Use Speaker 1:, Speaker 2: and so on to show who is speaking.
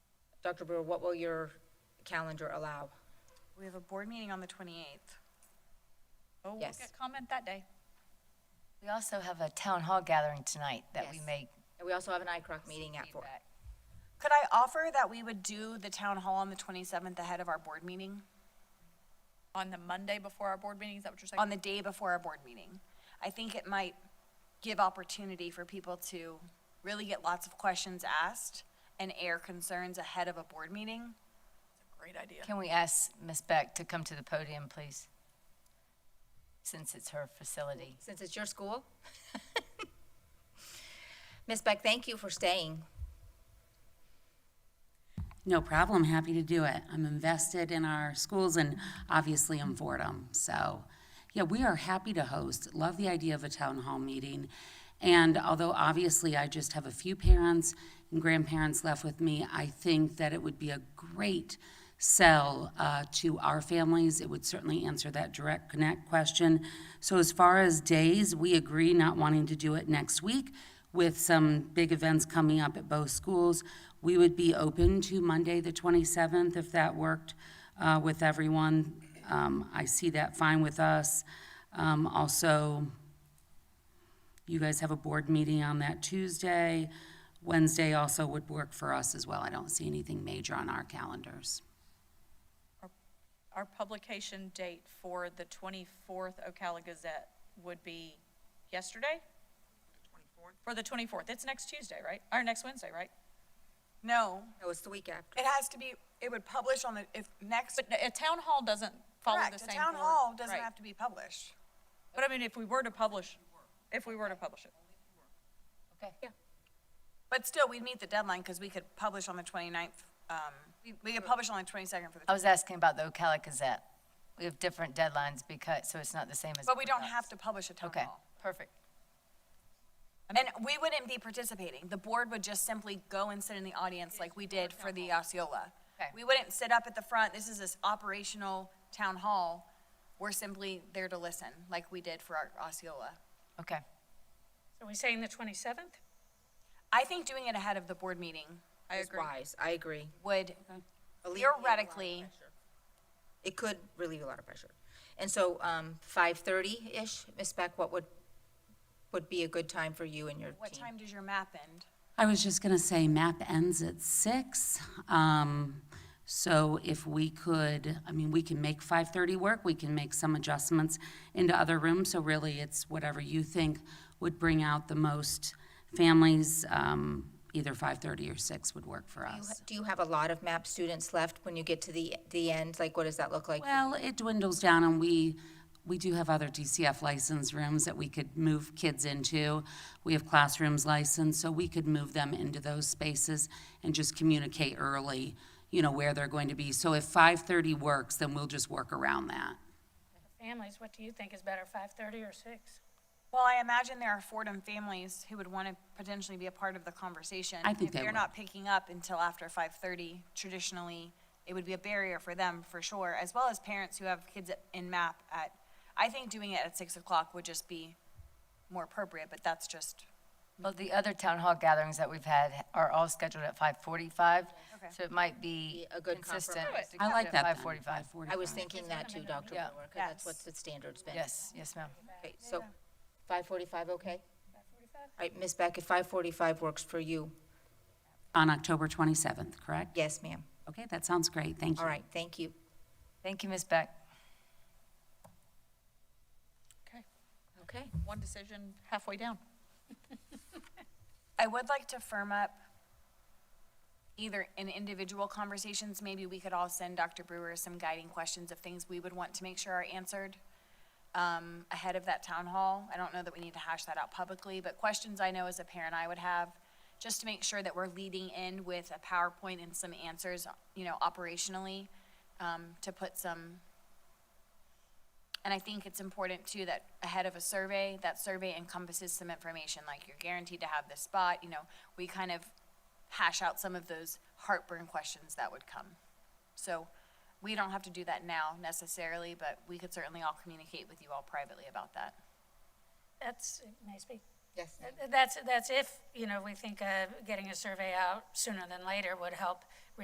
Speaker 1: Dr. Brewer, what will your calendar allow?
Speaker 2: We have a board meeting on the 28th.
Speaker 3: Oh, we'll
Speaker 1: Yes.
Speaker 3: get comment that day.
Speaker 4: We also have a town hall gathering tonight that we
Speaker 1: Yes.
Speaker 4: may.
Speaker 1: And we also have an ICROC meeting at four.
Speaker 4: feedback.
Speaker 2: Could I offer that we would do the town hall on the 27th ahead of our board meeting,
Speaker 3: On the Monday before our board meeting, is that what you're saying?
Speaker 2: on the day before our board meeting? I think it might give opportunity for people to really get lots of questions asked and air concerns ahead of a board meeting.
Speaker 3: Great idea.
Speaker 4: Can we ask Ms. Beck to come to the podium, please? Since it's her facility.
Speaker 1: Since it's your school? Ms. Beck, thank you for staying.
Speaker 5: No problem, happy to do it. I'm invested in our schools and obviously in Fordham. So, yeah, we are happy to host. Love the idea of a town hall meeting. And although obviously I just have a few parents and grandparents left with me, I think that it would be a great sell uh, to our families. It would certainly answer that direct connect question. So, as far as days, we agree not wanting to do it next week with some big events coming up at both schools. We would be open to Monday, the 27th, if that worked uh, with everyone. Um, I see that fine with us. Um, Also, you guys have a board meeting on that Tuesday. Wednesday also would work for us as well. I don't see anything major on our calendars.
Speaker 3: Our publication date for the 24th Ocala Gazette would be yesterday? 24th? For the 24th. It's next Tuesday, right? Or next Wednesday, right?
Speaker 2: No,
Speaker 1: No, it's the week after.
Speaker 2: it has to be, it would publish on the, if next,
Speaker 3: But a town hall doesn't follow the
Speaker 2: correct,
Speaker 3: same.
Speaker 2: a town
Speaker 3: board-
Speaker 2: hall doesn't
Speaker 3: right.
Speaker 2: have to be published.
Speaker 3: But I mean, if we were to publish, if we were to publish it.
Speaker 4: Okay.
Speaker 2: But still, we'd meet the deadline because we could publish on the 29th. um, We could publish on the 22nd for the,
Speaker 4: I was asking about the Ocala Gazette. We have different deadlines because, so it's not the same as.
Speaker 2: but we don't have to publish a town
Speaker 4: Okay,
Speaker 2: hall.
Speaker 4: perfect.
Speaker 2: And we wouldn't be participating. The board would just simply go and sit in the audience like we did for the Osceola.
Speaker 4: Okay.
Speaker 2: We wouldn't sit up at the front. This is this operational town hall. We're simply there to listen like we did for our Osceola.
Speaker 4: Okay.
Speaker 6: So we saying the 27th?
Speaker 2: I think doing it ahead of the board meeting
Speaker 3: I
Speaker 1: It's
Speaker 3: agree.
Speaker 1: wise, I agree.
Speaker 2: would
Speaker 1: Alleviate a lot of
Speaker 2: theoretically,
Speaker 1: pressure. It could relieve a lot of pressure. And so, um, five-thirty-ish, Ms. Beck, what would, would be a good time for you and your team?
Speaker 2: what time does your map end?
Speaker 5: I was just gonna say MAP ends at six. Um, so if we could, I mean, we can make five thirty work, we can make some adjustments into other rooms. So really, it's whatever you think would bring out the most families. Um, either five thirty or six would work for
Speaker 1: Do you ha-
Speaker 5: us.
Speaker 1: Do you have a lot of MAP students left when you get to the, the end? Like, what does that look like?
Speaker 5: Well, it dwindles down and we, we do have other DCF license rooms that we could move kids into. We have classrooms licensed, so we could move them into those spaces and just communicate early, you know, where they're going to be. So if five-thirty works, then we'll just work around that.
Speaker 6: The Families, what do you think is better, 5:30 or 6?
Speaker 2: Well, I imagine there are Fordham families who would want to potentially be a part of the conversation.
Speaker 5: I think
Speaker 2: If
Speaker 5: they
Speaker 2: they're
Speaker 5: will.
Speaker 2: not picking up until after five thirty, traditionally, it would be a barrier for them for sure, as well as parents who have kids at- in MAP at, I think doing it at six o'clock would just be more appropriate, but that's just,
Speaker 4: Well, the other town hall gatherings that we've had are all scheduled at five forty-five.
Speaker 2: Okay.
Speaker 4: So it might be
Speaker 1: A good
Speaker 4: consistent.
Speaker 1: compromise.
Speaker 4: to
Speaker 5: I
Speaker 4: keep
Speaker 5: like
Speaker 4: it
Speaker 5: that.
Speaker 4: at
Speaker 5: then,
Speaker 4: Five forty-five.
Speaker 5: 5:45.
Speaker 1: I was thinking that too, Dr. Brewer,
Speaker 4: Yeah.
Speaker 1: 'cause that's
Speaker 2: Yes.
Speaker 1: what the standard's been.
Speaker 4: Yes, yes, ma'am.
Speaker 1: Okay, so five forty-five, okay? All right, Ms. Beck, if five forty-five works for you,
Speaker 5: On October twenty-seventh, correct?
Speaker 1: yes, ma'am.
Speaker 5: Okay, that sounds great, thank you.
Speaker 1: All right, thank you.
Speaker 4: Thank you, Ms. Beck.
Speaker 3: Okay.
Speaker 1: Okay.
Speaker 3: One decision halfway down.
Speaker 2: I would like to firm up either in individual conversations, maybe we could all send Dr. Brewer some guiding questions of things we would want to make sure are answered um, ahead of that town hall. I don't know that we need to hash that out publicly, but questions I know as a parent I would have, just to make sure that we're leading in with a PowerPoint and some answers, you know, operationally, um, to put some and I think it's important too that ahead of a survey, that survey encompasses some information, like you're guaranteed to have this spot, you know, we kind of hash out some of those heartburn questions that would come. So we don't have to do that now necessarily, but we could certainly all communicate with you all privately about that.
Speaker 6: That's, may I speak?
Speaker 1: Yes.
Speaker 6: That's, that's if, you know, we think uh, getting a survey out sooner than later would help